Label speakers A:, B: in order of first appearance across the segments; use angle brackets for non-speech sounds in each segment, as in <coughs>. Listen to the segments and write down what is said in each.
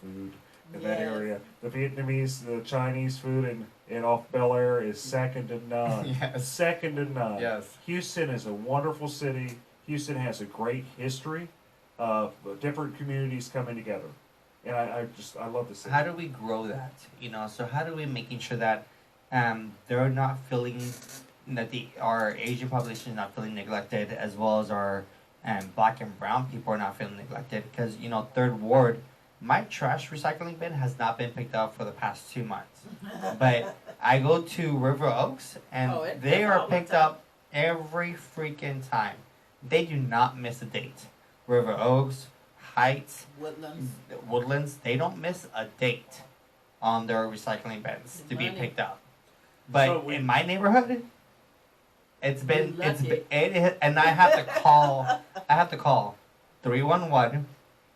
A: food in that area. The Vietnamese, the Chinese food in, in off Bel Air is second to none.
B: Yes.
A: Second to none.
B: Yes.
A: Houston is a wonderful city. Houston has a great history of different communities coming together. And I, I just, I love the city.
C: how do we grow that you know so how do we making sure that um, they're not feeling that the our asian population is not feeling neglected as well as our um, black and brown people are not feeling neglected because you know third ward my trash recycling bin has not been picked up for the past two months
D: <laughs>
C: but i go to river oaks and
D: Oh, it
C: they
D: does all
C: are
D: the
C: picked
D: time.
C: up every freaking time they do not miss a date river oaks heights
D: Woodlands.
C: Woodlands, they don't miss a date on their recycling bins to be
D: Money.
C: picked up. But
E: So we-
C: in my neighborhood, it's been
D: You're
C: it's
D: lucky.
C: been, it, is- and I have to call I have to call three one one.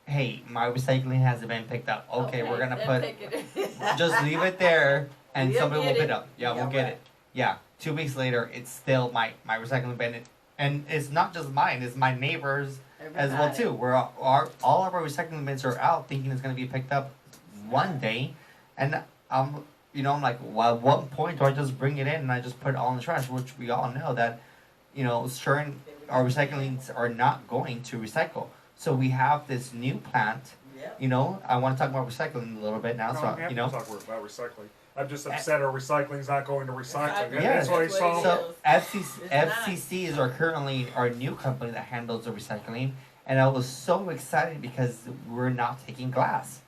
C: Hey, my recycling hasn't been picked up. Okay, we're gonna
D: then
C: put
D: pick it.
C: <laughs>
D: <laughs>
C: just leave it there and
D: We'll
C: somebody will
D: get
C: pick
D: it.
C: it up. Yeah, we'll
D: Yeah,
C: get
D: right.
C: it. Yeah. Two weeks later, it's still my my recycling bin, and it's not just mine. It's my neighbors as well
D: Everybody.
C: too. We're all, our, all of our recycling bins are out, thinking it's gonna be picked up one day, and I'm you know I'm like, well, at what point do I just bring it in and I just put it all in the trash? Which we all know that, you know, certain our recyclings are not going to recycle. So we have this new plant.
D: Yep.
C: You know, I want to talk about recycling a little bit
A: No,
C: now.
A: we
C: so
A: have
C: you know,
A: to talk about recycling. I'm just upset our recycling's not going to recycling.
D: Exactly.
A: That's why I
D: That's what it
A: saw.
D: is.
C: So FCC,
D: It's not.
C: FCCs are currently our new company that handles the recycling, and I was so excited because we're not taking glass,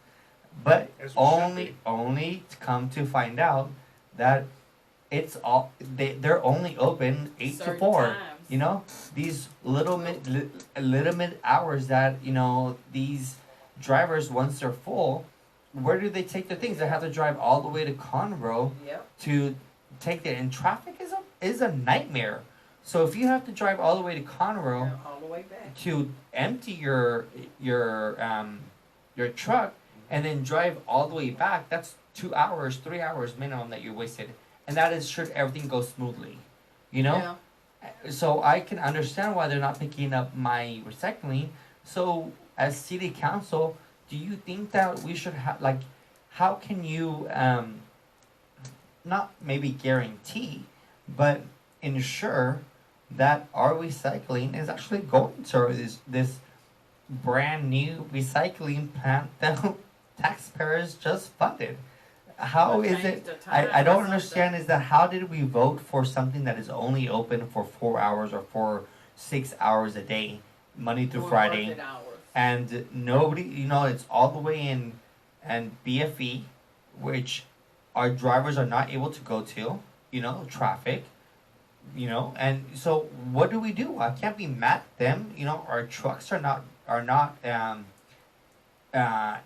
C: but
A: As we should
C: only
A: be.
C: only to come to find out that it's all they they're only open eight
D: Certain
C: to four.
D: times.
C: You know these little mid li, little mid hours that you know these drivers once they're full, where do they take their things? They have to drive all the way to Conroe
D: Yep.
C: to take that. And traffic is a is a nightmare. So if you have to drive all the way to Conroe
D: All the way back.
C: to empty your your um, your truck and then drive all the way back, that's two hours, three hours minimum that you wasted. And that is should everything go smoothly, you know.
D: Yeah.
C: So I can understand why they're not picking up my recycling. So as city council, do you think that we should have like, how can you um, not maybe guarantee, but ensure that our recycling is actually going to this this brand new recycling plant <laughs> that taxpayers just funded? How
D: They
C: is
D: changed
C: it?
D: the time
C: I, I
D: or
C: don't
D: something.
C: understand is that how did we vote for something that is only open for four hours or for six hours a day, Monday through
D: Four
C: Friday,
D: working hours.
C: and nobody, you know, it's all the way in, and BFE, which our drivers are not able to go to, you know, traffic, you know, and so what do we do? I can't be mad at them, you know. Our trucks are not are not um, uh,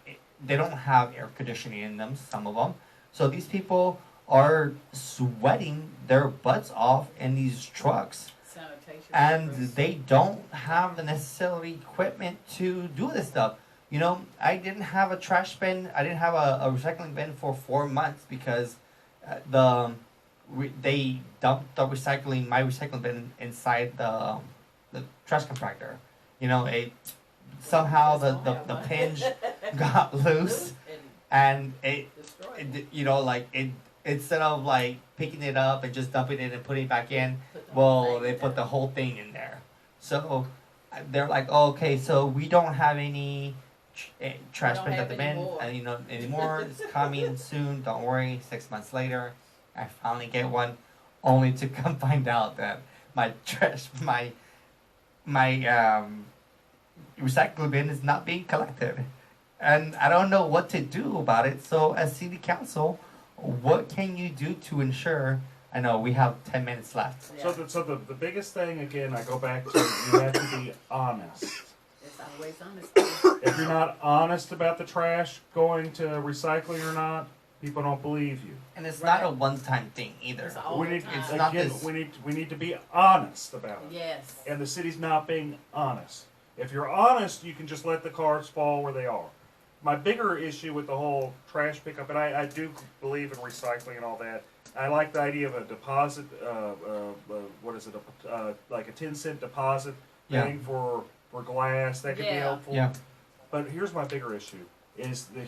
C: they don't have air conditioning in them. Some of them, so these people are sweating their butts off in these trucks
D: Sanitation.
C: and
D: workers.
C: they don't have the necessary equipment to do this stuff. You know, I didn't have a trash bin. I didn't have a, a recycling bin for four months because uh, the re- they dumped the recycling my recycling bin inside the um, the trash compactor. You know, it somehow the the, the pinch
D: <laughs>
C: got loose
D: Loose and
C: and it
D: destroyed.
C: it- you know, like it instead of like picking it up and just dumping it and putting it back in,
D: Put the whole
C: well,
D: thing
C: they put
D: down.
C: the whole thing in there. So uh, they're like, oh, okay, so we don't have any tr- eh, trash
D: don't
C: bins
D: have
C: at the
D: any
C: bin,
D: more."
C: and you know anymore. it's
D: <laughs>
C: coming soon. Don't worry. Six months later, I finally get one, only to come <laughs> find out that my trash, my my um, recycle bin is not being collected, and I don't know what to do about it. So, as city council, what can you do to ensure? I know we have ten minutes left.
D: Yeah.
A: So, the, so the, the biggest thing, again, I go back to you have to be honest.
D: It's always honest.
A: If you're not honest about the trash going to recycling or not, people don't believe you.
C: And it's not
D: Right.
C: a one-time thing either.
D: It's all
A: we
D: the
A: need
D: time.
C: It's not
A: again,
C: this-
A: we need we need to be honest about it.
D: <coughs> Yes.
A: And the city's not being honest. If you're honest, you can just let the cards fall where they are. My bigger issue with the whole trash pickup, and I, I do believe in recycling and all that. I like the idea of a deposit. Uh, uh, uh, what is it? A, uh, like a ten cent deposit
C: Yeah.
A: thing for for glass that could be
D: Yeah.
A: helpful.
C: Yeah.
A: But here's my bigger issue: is the